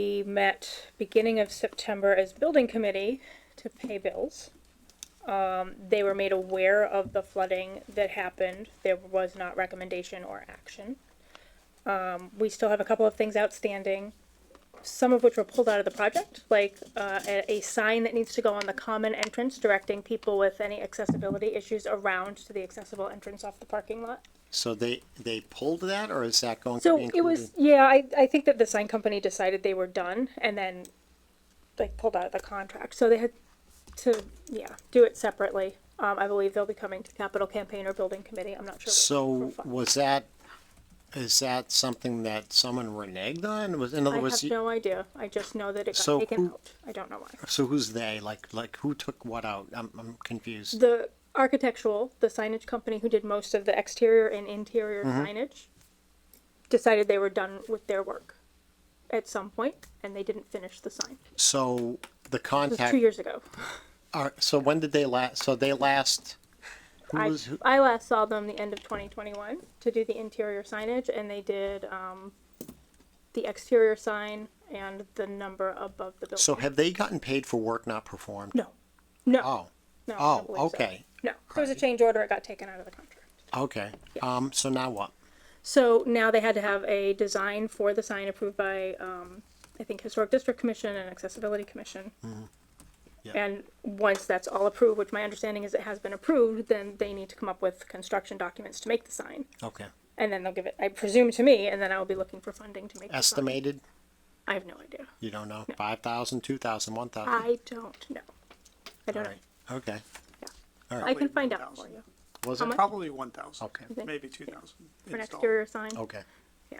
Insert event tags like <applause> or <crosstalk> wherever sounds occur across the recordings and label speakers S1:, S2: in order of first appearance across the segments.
S1: We met beginning of September as building committee to pay bills. Um, they were made aware of the flooding that happened. There was not recommendation or action. Um, we still have a couple of things outstanding, some of which were pulled out of the project, like, uh, a, a sign that needs to go on the common entrance directing people with any accessibility issues around to the accessible entrance off the parking lot.
S2: So they, they pulled that, or is that going to
S1: So
S2: be
S1: it was,
S2: included?
S1: yeah, I, I think that the sign company decided they were done and then like pulled out of the contract. So they had to, yeah, do it separately. Um, I believe they'll be coming to capital campaign or building committee. I'm not sure. which
S2: So
S1: for fi-
S2: was that, is that something that someone reneged on? Was, in
S1: I
S2: other words,
S1: have
S2: you-
S1: no idea. I just know that it got
S2: So
S1: taken
S2: who-
S1: out. I don't know why.
S2: so who's they? Like, like who took what out? I'm, I'm confused.
S1: The architectural, the signage company who did most of the exterior and interior
S2: Mm-hmm.
S1: signage decided they were done with their work at some point and they didn't finish the sign.
S2: So the
S1: Mm. It was two
S2: contact,
S1: years ago.
S2: are, so when did they last, so they last, who
S1: I,
S2: was, who-
S1: I last saw them the end of 2021 to do the interior signage, and they did um, the exterior sign and the number above the building.
S2: so have they gotten paid for work not performed?
S1: no, no,
S2: Oh,
S1: no. I
S2: oh,
S1: don't believe so.
S2: okay.
S1: No, there was a change order. It got taken out of the contract.
S2: okay. Um, so now what?
S1: So now they had to have a design for the sign approved by, um, I think, Historic District Commission and Accessibility Commission.
S2: Mm-hmm. Yeah.
S1: And once that's all approved, which my understanding is it has been approved, then they need to come up with construction documents to make the sign.
S2: Okay.
S1: and then they'll give it, I presume, to me, and then I'll be looking for funding to make. the sign.
S2: Estimated?
S1: I have no idea.
S2: You don't know? Five thousand, two thousand, one thousand?
S1: I don't know. I
S2: All
S1: don't know.
S2: right, okay.
S1: I can find out for you
S2: Was
S1: How
S2: it?
S1: much?
S3: Probably one thousand.
S2: Okay,
S1: think-
S3: Maybe two thousand.
S1: for an exterior sign.
S2: okay,
S1: Yeah,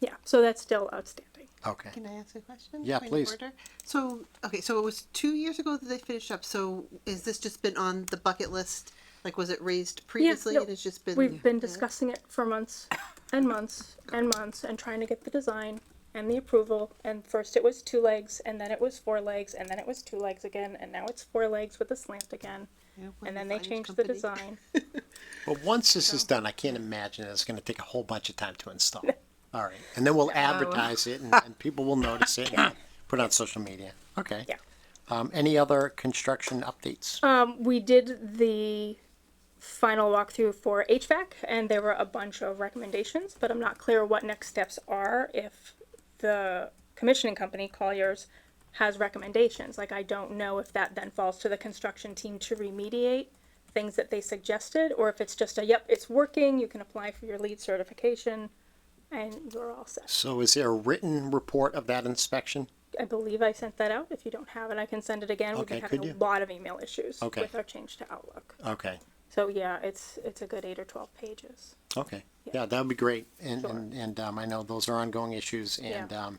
S1: yeah. So that's still outstanding.
S2: okay.
S4: Can I ask a question?
S2: Yeah,
S4: Point of
S2: please.
S4: order? So, okay, so it was two years ago that they finished up, so is this just been on the bucket list? Like, was it raised previously
S1: no,
S4: and it's just been?
S1: We've been discussing it for months and months and months and trying to get the design and the approval. And first it was two legs, and then it was four legs, and then it was two legs again, and now it's four legs with a slant again.
S4: Yeah, with
S1: And
S4: the
S1: then they
S4: signage
S1: changed the
S4: company. <laughs>
S1: design.
S2: But once this is done, I can't imagine it's gonna take a whole bunch of time to
S1: <laughs>
S2: install. All right, and then we'll advertise it and, and people will notice it and put it on social media. Okay.
S1: Yeah.
S2: Um, any other construction updates?
S1: Um, we did the final walkthrough for HVAC, and there were a bunch of recommendations, but I'm not clear what next steps are if the commissioning company, Colliers, has recommendations. Like, I don't know if that then falls to the construction team to remediate things that they suggested, or if it's just a, yep, it's working, you can apply for your lead certification, and you're all set.
S2: So is there a written report of that inspection?
S1: I believe I sent that out. If you don't have it, I can send it again. We've
S2: Okay,
S1: been
S2: could
S1: having a
S2: you?
S1: lot of email issues
S2: Okay.
S1: with our change to Outlook.
S2: Okay,
S1: So yeah, it's it's a good eight or twelve pages.
S2: okay.
S1: Yeah.
S2: Yeah, that would be great. And,
S1: Sure.
S2: and, and, um, I know those are ongoing issues and,
S1: Yeah.
S2: um,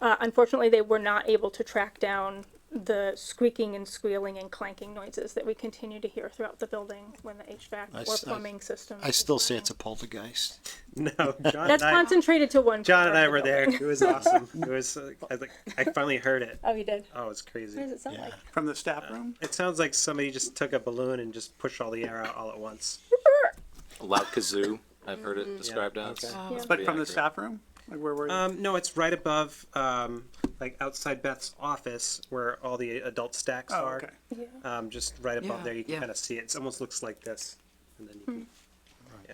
S1: Uh, unfortunately, they were not able to track down the squeaking and squealing and clanking noises that we continue to hear throughout the building when the HVAC
S2: I
S1: or
S2: s- I-
S1: plumbing system.
S2: I
S1: is
S2: still say
S1: running.
S2: it's a poltergeist.
S5: <laughs> No, John
S1: That's
S5: and I,
S1: concentrated to one.
S5: John
S1: corner
S5: and
S1: of
S5: I
S1: the
S5: were there.
S1: building.
S5: It was awesome. It was uh, I was like I finally heard it.
S1: Oh, you did.
S5: Oh, it's
S1: What does
S5: crazy.
S1: it sound
S2: Yeah.
S1: like?
S3: From the staff room?
S5: It sounds like somebody just took a balloon and just pushed all the air out all at once.
S6: loud kazoo. I've heard it described as.
S5: okay.
S1: Yeah.
S3: But from the
S6: accurate.
S3: staff room? Like where were you?
S5: Um, no, it's right above um, like outside Beth's office where all the adult stacks
S3: Oh,
S5: are.
S3: okay.
S1: Yeah.
S5: Um, just right above
S7: Yeah,
S5: there, you can
S7: yeah.
S5: kind of see it. It almost looks like this, and then you
S1: Hmm.
S5: can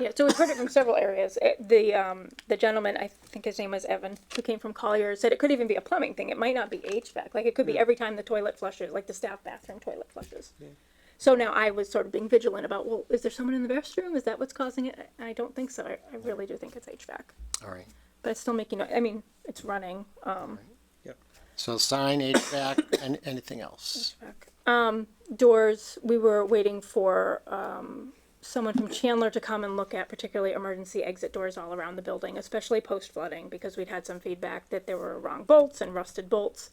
S1: Yeah, so we've heard it from several areas. It, the um, the gentleman, I think his name was Evan, who came from Collier, said it could even be a plumbing thing. It might not be HVAC. Like it could be every time the toilet flushes, like the staff bathroom toilet flushes. So now I was sort of being vigilant about, well, is there someone in the restroom? Is that what's causing it? And I don't think so. I, I really do think it's HVAC,
S2: All right.
S1: but it's still making. no- I mean, it's running. Um,
S2: So sign, HVAC, and anything else?
S1: doors, we were waiting for um, someone from Chandler to come and look at particularly emergency exit doors all around the building, especially post flooding, because we'd had some feedback that there were wrong bolts and rusted bolts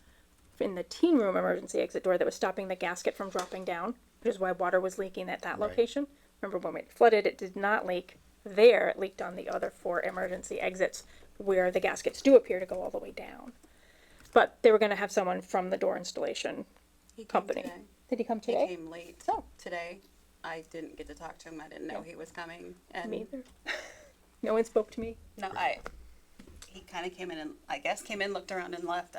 S1: in the teen room emergency exit door that was stopping the gasket from dropping down, which is why water was leaking at that location. Remember when it flooded, it did not leak there, it leaked on the other four emergency exits where the gaskets do appear to go all the way down. But they were gonna have someone from the door installation
S8: He came
S1: company.
S8: today.
S1: Did he come
S8: He
S1: today?
S8: came late
S1: Oh.
S8: today. I didn't get to talk to him.
S1: <laughs>
S8: I didn't know he was coming. And
S1: Me either. No one spoke to me.
S8: no, I. he kind of came in and, I guess, came in, looked around and left.